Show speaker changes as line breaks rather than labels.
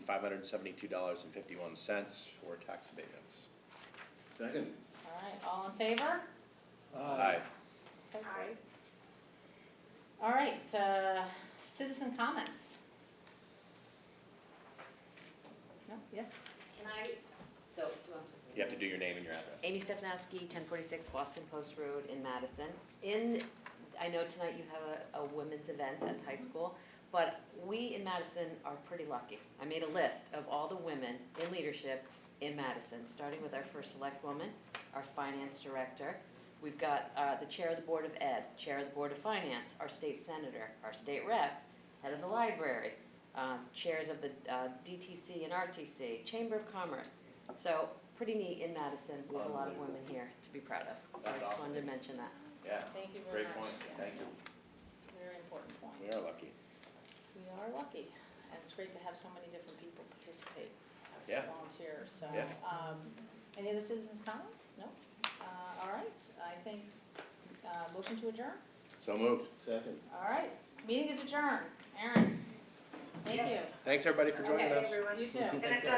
five hundred and seventy-two dollars and fifty-one cents for tax abatements.
Second.
All right, all in favor?
Aye.
Okay, great. All right, uh, citizen comments. No, yes?
Can I, so, do I just?
You have to do your name and your address.
Amy Stefanowski, ten forty-six Boston Post Road in Madison. In, I know tonight you have a, a women's event at the high school, but we in Madison are pretty lucky. I made a list of all the women in leadership in Madison, starting with our first select woman, our finance director. We've got, uh, the chair of the Board of Ed, chair of the Board of Finance, our state senator, our state rep, head of the library, um, chairs of the, uh, DTC and RTC, Chamber of Commerce. So, pretty neat in Madison, we have a lot of women here to be proud of, so I
That's
just
awesome.
wanted to mention that.
Yeah,
Thank you very
great
much.
point, thank you.
Very important point.
We are lucky.
We are lucky, and it's great to have so many different people participate, uh,
Yeah.
volunteer, so.
Yeah.
um, Any other citizens' comments? No? Uh, All right, I think, uh, motion to adjourn?
So moved.
Second.
All right, meeting is adjourned. Aaron, thank you.
Thanks, everybody, for joining
Okay,
us.
You too.